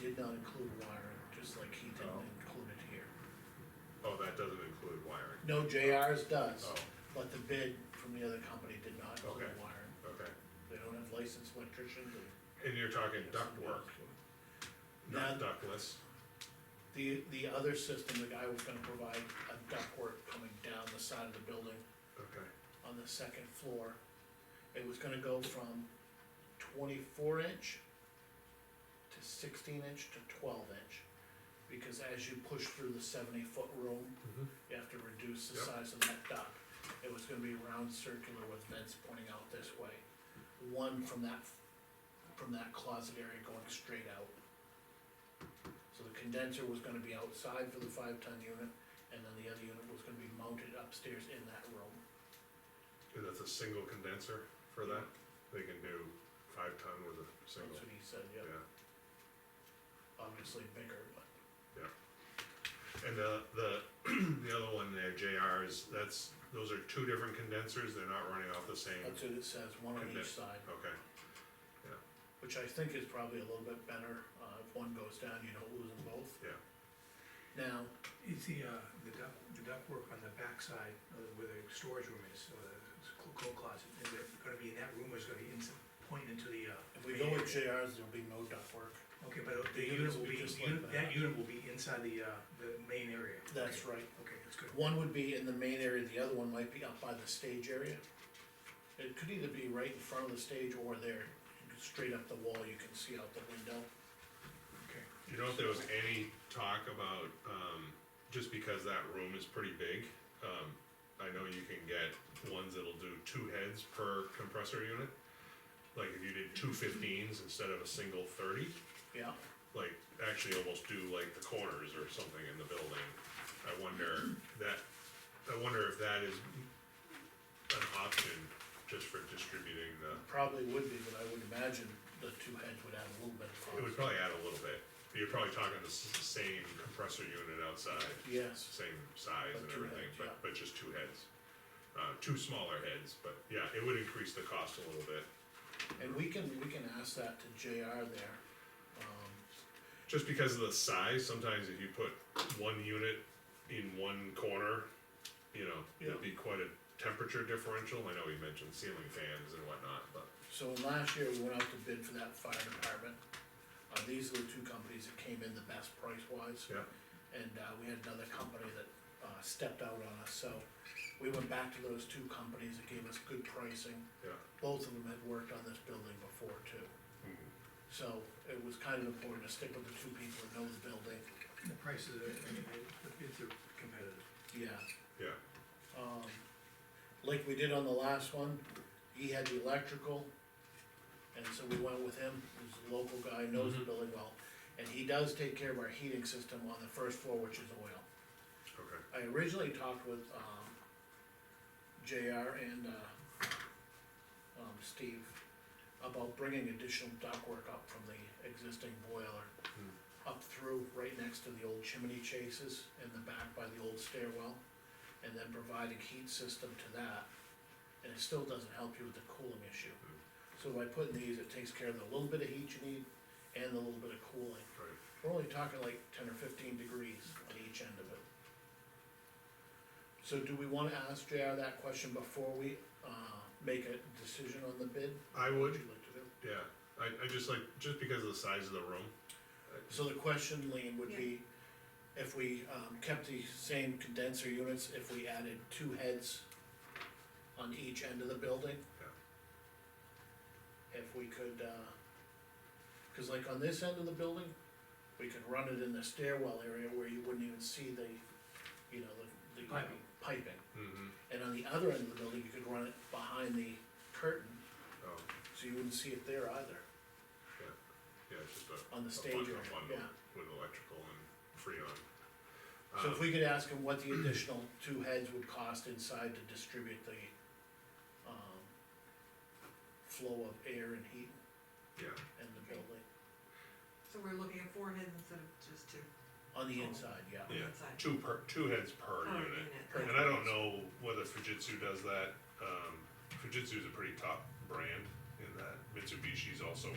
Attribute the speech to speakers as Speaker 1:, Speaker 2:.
Speaker 1: did not include wiring, just like he didn't include it here.
Speaker 2: Oh, that doesn't include wiring,
Speaker 1: No, JR's does,
Speaker 2: Oh.
Speaker 1: but the bid from the other company did not include
Speaker 2: Okay.
Speaker 1: wiring.
Speaker 2: okay.
Speaker 1: They don't have licensed electricians and.
Speaker 2: And you're talking ductwork,
Speaker 1: Now,
Speaker 2: not ductless,
Speaker 1: the, the other system, the guy was gonna provide a ductwork coming down the side of the building
Speaker 2: okay,
Speaker 1: on the second floor. It was gonna go from twenty-four inch to sixteen inch to twelve inch. Because as you push through the seventy-foot room,
Speaker 2: Mhm.
Speaker 1: you have to reduce the
Speaker 2: Yep.
Speaker 1: size of that duct. It was gonna be round circular with vents pointing out this way. One from that, from that closet area going straight out. So the condenser was gonna be outside for the five-ton unit, and then the other unit was gonna be mounted upstairs in that room.
Speaker 2: and that's a single condenser for that, they can do five ton with a
Speaker 1: That's
Speaker 2: single,
Speaker 1: what he said,
Speaker 2: yeah.
Speaker 1: yeah, obviously bigger, but
Speaker 2: And the, the, the other one there, JR, is, that's, those are two different condensers, they're not running off the same,
Speaker 1: that's what it says, one on each
Speaker 2: Condense.
Speaker 1: side,
Speaker 2: okay,
Speaker 1: which I think is probably a little bit better, uh, if one goes down, you don't lose them both.
Speaker 2: Yeah.
Speaker 1: Now,
Speaker 3: It's the, uh, the duct, the ductwork on the backside uh, where the storage room is, or the cl- coat closet, is it gonna be in that room or is it gonna be ins- point into the, uh?
Speaker 1: if we go with JRs, there'll be no ductwork,
Speaker 3: Okay, but
Speaker 1: the
Speaker 3: the unit
Speaker 1: units will
Speaker 3: will
Speaker 1: be
Speaker 3: be,
Speaker 1: just
Speaker 3: the unit-
Speaker 1: like that.
Speaker 3: that unit will be inside the, uh, the main area.
Speaker 1: that's
Speaker 3: Okay,
Speaker 1: right.
Speaker 3: Okay, that's good.
Speaker 1: One would be in the main area, the other one might be up by the stage area. It could either be right in front of the stage or there, straight up the wall, you can see out the window.
Speaker 3: Okay.
Speaker 2: You know, if there was any talk about, um, just because that room is pretty big, um, I know you can get ones that'll do two heads per compressor unit. Like if you did two 15s instead of a single thirty,
Speaker 1: Yeah,
Speaker 2: like actually almost do like the corners or something in the building. I wonder that, I wonder if that is an option just for distributing the,
Speaker 1: probably would be, but I would imagine the two heads would add a little bit of
Speaker 2: it
Speaker 1: cost.
Speaker 2: would probably add a little bit. You're probably talking the s- same compressor unit outside.
Speaker 1: Yes.
Speaker 2: same size
Speaker 1: But
Speaker 2: and
Speaker 1: two
Speaker 2: everything,
Speaker 1: heads, yeah.
Speaker 2: but, but just two heads. Uh, two smaller heads, but yeah, it would increase the cost a little bit,
Speaker 1: And we can, we can ask that to JR there. Um,
Speaker 2: just because of the size, sometimes if you put one unit in one corner, you know,
Speaker 1: Yeah.
Speaker 2: it'd be quite a temperature differential, I know you mentioned ceiling fans and whatnot, but.
Speaker 1: So last year, we went out to bid for that fire department. Uh, these are the two companies that came in the best price wise.
Speaker 2: Yeah.
Speaker 1: And, uh, we had another company that, uh, stepped out on us, so we went back to those two companies that gave us good pricing.
Speaker 2: Yeah.
Speaker 1: Both of them had worked on this building before too, so it was kind of important to stick with the two people that know the building,
Speaker 3: The prices are, I mean, the bids are competitive.
Speaker 1: yeah.
Speaker 2: Yeah,
Speaker 1: um, like we did on the last one, he had the electrical. And so we went with him, who's a local guy, knows the
Speaker 2: Mhm.
Speaker 1: building well, and he does take care of our heating system on the first floor, which is oil.
Speaker 2: okay,
Speaker 1: I originally talked with, um, JR and, uh, um, Steve about bringing additional ductwork up from the existing boiler up through, right next to the old chimney chases in the back by the old stairwell, and then providing heat system to that. And it still doesn't help you with the cooling issue. So by putting these, it takes care of the little bit of heat you need and the little bit of cooling.
Speaker 2: right,
Speaker 1: We're only talking like ten or fifteen degrees on each end of it. So do we wanna ask JR that question before we, uh, make a decision on the bid?
Speaker 2: I would,
Speaker 1: Would you like to do?
Speaker 2: yeah, I, I just like, just because of the size of the room,
Speaker 1: So the question, Lean, would be, if we, um, kept the same condenser units, if we added two heads on each end of the building? If we could, uh, cause like on this end of the building, we could run it in the stairwell area where you wouldn't even see the, you know, the, the
Speaker 3: Piping.
Speaker 1: piping.
Speaker 2: mm-hmm,
Speaker 1: And on the other end of the building, you could run it behind the curtain,
Speaker 2: oh,
Speaker 1: so you wouldn't see it there either,
Speaker 2: yeah, it's just a.
Speaker 1: on the
Speaker 2: a
Speaker 1: stage
Speaker 2: bundle-
Speaker 1: area,
Speaker 2: a bundle
Speaker 1: yeah.
Speaker 2: With electrical and freon.
Speaker 1: So
Speaker 2: Um,
Speaker 1: if we could ask him what the additional two heads would cost inside to distribute the, um, flow of air and heat
Speaker 2: Yeah,
Speaker 1: in the building,
Speaker 4: So we're looking at four heads instead of just two
Speaker 1: on the inside, yeah.
Speaker 2: Yeah.
Speaker 4: inside. Oh,
Speaker 2: two per, two heads per
Speaker 4: Per
Speaker 2: unit.
Speaker 1: Per
Speaker 2: And I don't know whether Fujitsu does that, um, Fujitsu's a pretty top brand in that, Mitsubishi's also